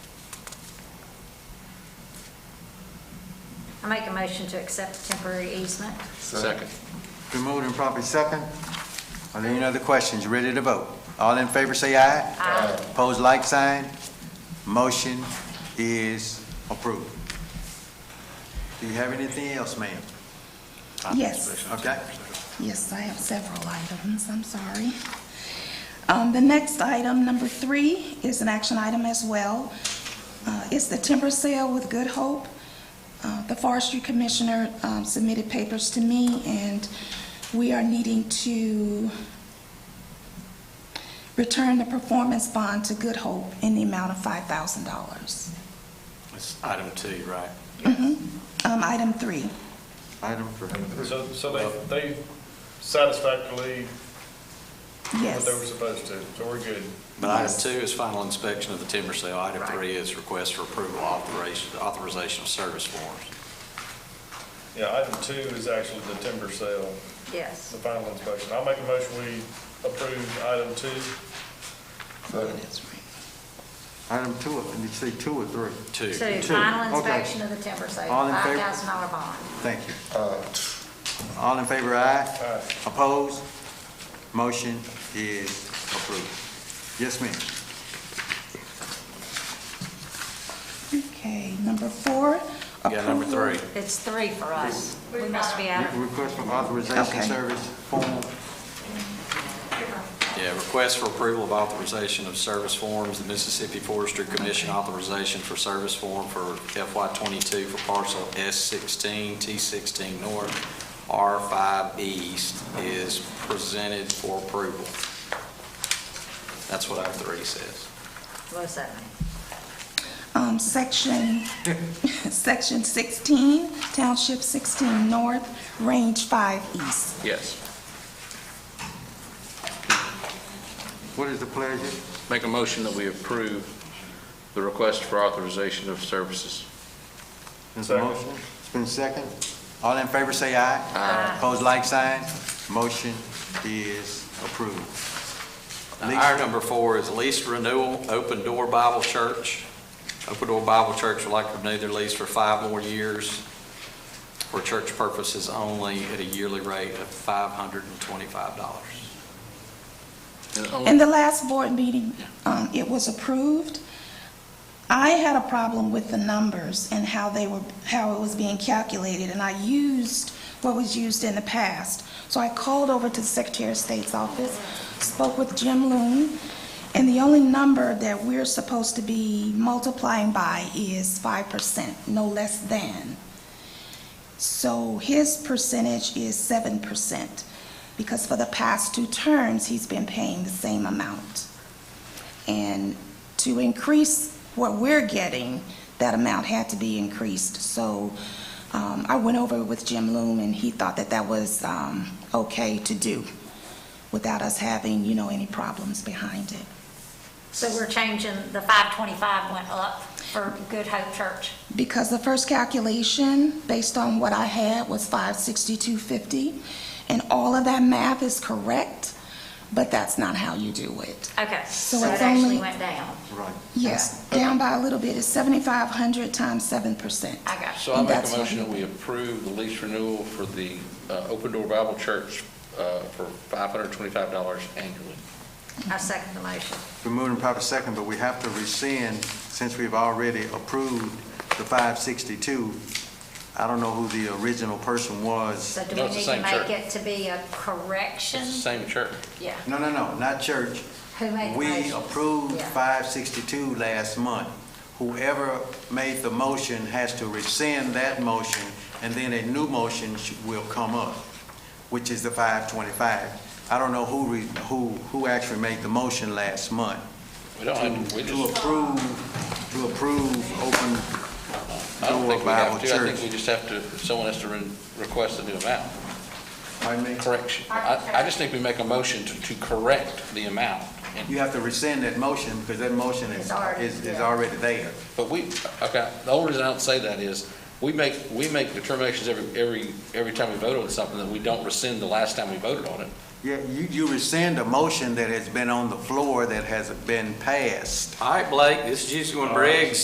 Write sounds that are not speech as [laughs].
I make a motion to accept temporary easement. Second. Been moved and properly second. Are there any other questions? Ready to vote? All in favor, say aye. Aye. Pose like sign. Motion is approved. Do you have anything else, ma'am? Yes, Okay? yes, I have several items, I'm sorry. Um, The next item, number three, is an action item as well. Uh, It's the timber sale with Good Hope. Uh, The forestry commissioner um, submitted papers to me, and we are needing to return the performance bond to Good Hope in the amount of $5,000. It's item two, right? Um, Item three. Item three. So, so they, they satisfactorily did what Yes. they were supposed to, so we're good. But item Yes. two is final inspection of the timber sale. Item three is request for approval authorization, authorization of service forms. Yeah, item two is actually the timber sale, the Yes. final inspection. I'll make a motion, we approve item two. That's right. Item two, or- did you say two or three? Two. To Two, final okay. inspection of the timber sale, All in favor? $5,000 bond. Thank you. All in favor, aye? Uh, Aye. Opposed? Motion is approved. Yes, ma'am. Okay, number four. Yeah, number approval- three. It's three for us. We must be out of, Request for authorization Okay. service form. Yeah, request for approval of authorization of service forms, the Mississippi Forestry Commission authorization for service form for FY twenty-two for parcel S sixteen, T sixteen north, R five east is presented for approval. That's what item three says. what's that mean? Um, section, [laughs] section 16, township 16 north, range 5 east. Yes. What is the pleasure? Make a motion that we approve the request for authorization of services. There's a Second. motion. It's been second. All in favor, say aye. Aye. Pose like sign. Motion is approved. Now, Our number four is lease renewal, Open Door Bible Church. Open Door Bible Church would like to renew their lease for five more years for church purposes only at a yearly rate of $525. In the last board meeting, um, it was approved. I had a problem with the numbers and how they were, how it was being calculated, and I used what was used in the past. So I called over to the Secretary of State's office, spoke with Jim Loon, and the only number that we're supposed to be multiplying by is five percent, no less than. So his percentage is seven percent, because for the past two terms, he's been paying the same amount. And to increase what we're getting, that amount had to be increased. So um, I went over with Jim Loom, and he thought that that was um, okay to do without us having, you know, any problems behind it. So we're changing, the 525 went up for Good Hope Church. Because the first calculation, based on what I had, was five sixty-two fifty, and all of that math is correct, but that's not how you do it. Okay, so So it it's actually only- went down. Right. Yes, down by a little bit, it's seventy-five hundred times seven percent. I got you. So I make That's a what motion he- that we approve the lease renewal for the uh, Open Door Bible Church uh, for $525 annually. I second the motion. We're moving proper second, but we have to rescind, since we've already approved the 562. I don't know who the original person was. So do No, we it's the need to same church. make it to be a correction? It's the same church. Yeah. No, no, no, not church. Who made the We motion? approved Yeah. 562 last month. Whoever made the motion has to rescind that motion, and then a new motion sh- will come up, which is the 525. I don't know who, re- who, who actually made the motion last month We don't have, to- we to just, approve, to approve open I don't Door think we Bible have to. I think Church. we just have to, someone has to re- request a new amount. Pardon me? Correction. I, I just think we make a motion to, to correct the amount. And You have to rescind that motion because that motion is, It's already- is, is yeah. already there. But we, okay, the only reason I don't say that is, we make, we make determinations every, every, every time we vote on something that we don't rescind the last time we voted on it. Yeah, you, you rescind a motion that has been on the floor that has been passed. All right, Blake, this is Juicy One Briggs.